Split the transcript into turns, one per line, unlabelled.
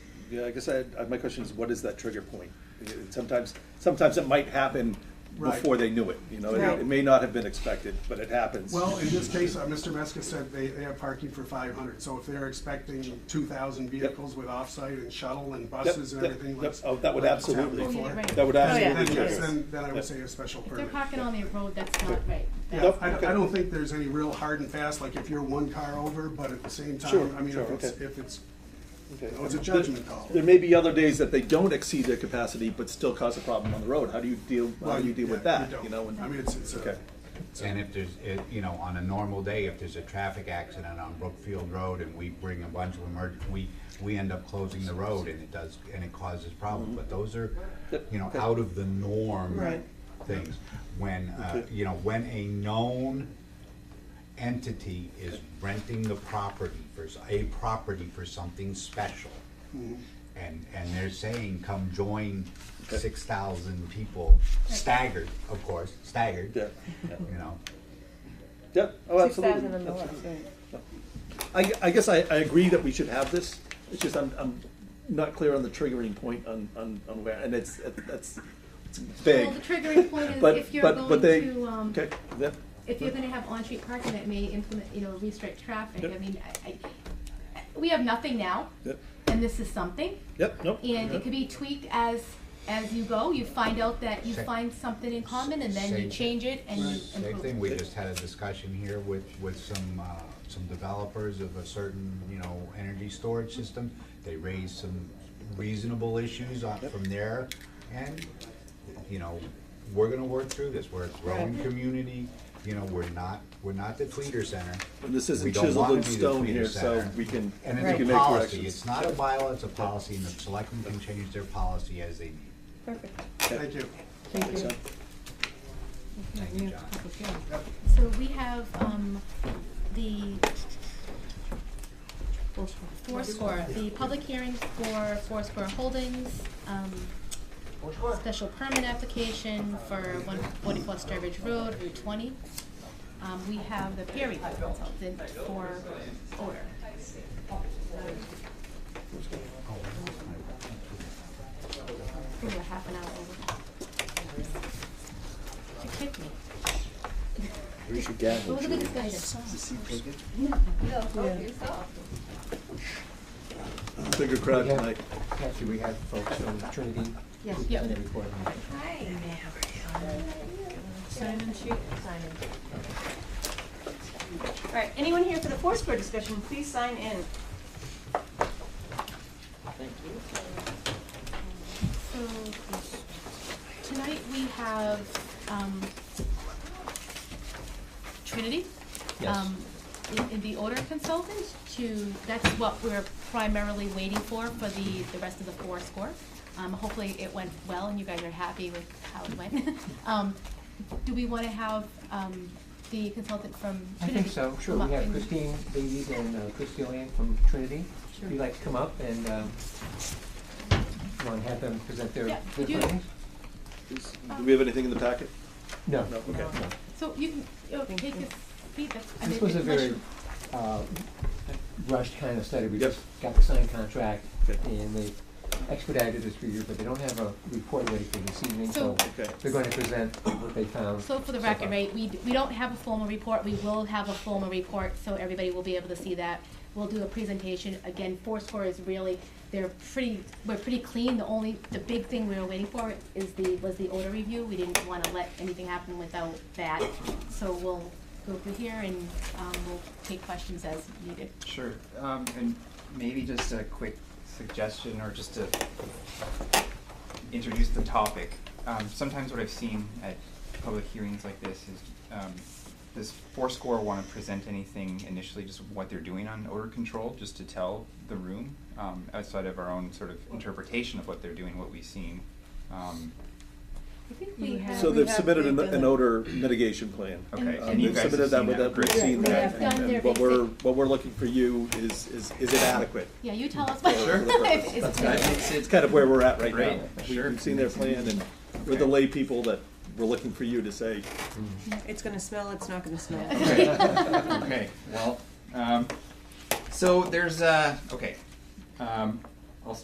Yeah, I guess I, had- my question is, what is that trigger point? Sometimes, sometimes it might happen
Right.
before they knew it, you know,
Right.
it it may not have been expected, but it happens.
Well, in this case, uh, Mr. Meska said they, they have parking for five hundred, so if they're expecting two thousand vehicles with offsite and shuttle and buses and
yep,
everything
yep.
like.
Oh, that would
like
absolutely-
town
Oh, yeah,
before,
right.
That would
Oh,
Then,
absolutely
yeah.
yes,
trigger.
then, then I
Yeah.
would say a special
If they're
permit.
parking on a road that's not right.
Yeah,
Nope,
I,
okay.
I don't think there's any real hard and fast, like if you're one car over, but at the same
Sure,
time, I mean,
sure,
if it's,
okay.
if it's,
Okay.
it was a judgment call.
There may be other days that they don't exceed their capacity, but still cause a problem on the road. How do you deal, how
well,
do you deal with
yeah,
that, you
don't.
know? and-
I mean, it's, it's
Okay.
a,
And if there's, it- you know, on a normal day, if there's a traffic accident on Brookfield Road and we bring a bunch of emerg, we, we end up closing the road and it does, and it causes problems. But those are, you know, out of the norm
Mm-hmm. Right.
things. When, uh, you know, when a known entity is renting the property for, s- a property for something special.
Mm-hmm.
And, and they're saying, come join six thousand people, staggered, of course, staggered.
Yeah,
You know,
yeah, oh, absolutely.
2000 and the left, right.
I, I guess I, I agree that we should have this, it's just I'm, I'm not clear on the triggering point on, on, on where, and it's, that's, it's vague.
Well, the triggering point is
But,
if you're
but, but
going
they,
to, um,
okay, yeah,
if you're gonna have on-street parking that may implement, you know, restrict traffic,
Yep.
I mean, I, I, we have nothing now,
yep,
and this is something.
yep, nope.
And
yep.
it could be tweaked as, as you go, you find out that you
Same.
find something in common, and then you
Same.
change it and you
same
improve.
thing, we just had a discussion here with, with some, uh, some developers of a certain, you know, energy storage system. They raised some reasonable issues on, from there, and, you know, we're gonna work through this, we're a growing community, you know, we're not, we're not the Fleeter Center.
And this isn't
We don't
chiseled
wanna
in
be the
stone
Fleeter
here, so
Center.
we can, we
And
can
it's a
make
policy, it's
corrections.
not a bylaw, it's a policy, and the selectmen can change their policy as they need.
Perfect.
thank you.
Thank you.
So-
Thank you, John.
So we have, um, the Foursquare, the public hearing for Foursquare Holdings, um, special permit application for one forty-four Sturbridge Road, Route twenty. Um, we have the peer review consultant for order. We were half an hour over. You kicked me. Oh,
We should gather.
What was the discussion?
Bigger crowd tonight.
Kathy, we had folks from Trinity.
Yes.
who've
Yeah.
done the recording.
Simon Chu. Simon. All right, anyone here for the Foursquare discussion, please sign in.
So, tonight we have, um, Trinity.
Yes.
um, In, in the order consultant to, that's what we're primarily waiting for, for the, the rest of the four score. Um, hopefully it went well and you guys are happy with how it went. Um, do we wanna have, um, the consultant from
I
Trinity?
think so, sure.
come
We
up and-
have Christine Davies and uh, Christy Land from Trinity. If you'd like to come up and, um, want to have them present their
Yeah,
their
could you-
findings?
Is- Do we have anything in the packet?
No.
No, okay.
So you can, oh, take this, Pete, that's, I mean,
This was a
unless
very
you-
uh, rushed kind of study. We
Yep.
just got the signed contract
Okay.
and they expedited this review, but they don't have a report ready for this evening, so
So-
Okay.
they're going to present what they found.
So for the
so
record,
far.
right, we, d- we don't have a formal report, we will have a formal report, so everybody will be able to see that. We'll do a presentation, again, Foursquare is really, they're pretty, we're pretty clean, the only, the big thing we were waiting for is the, was the order review. We didn't wanna let anything happen without that, so we'll go through here and, um, we'll take questions as needed.
Sure, um, and maybe just a quick suggestion or just to introduce the topic. Um, sometimes what I've seen at public hearings like this is, um, does Foursquare wanna present anything initially, just what they're doing on odor control, just to tell the room, um, outside of our own sort of interpretation of what they're doing, what we've seen? Um,
I think
we
we
You have-
have.
So
we
they've submitted
they've
an,
done
an
it.
odor mitigation plan.
And-
okay,
Um,
and
and you
We've
guys have
submitted that,
seen
with that, we've
great.
seen
We
that,
have
and-
done their
and what we're,
basic-
what we're looking for you is, is, is it adequate?
Yeah, you tell us.
Sure.
if it's-
That makes
It's
it,
kind of where we're at right now.
Right,
We-
sure.
We've seen their plan, and we're the
Okay.
lay people that we're looking for you to say,
It's gonna smell, it's not gonna smell.
okay. okay, well, um, so there's, uh, okay, um,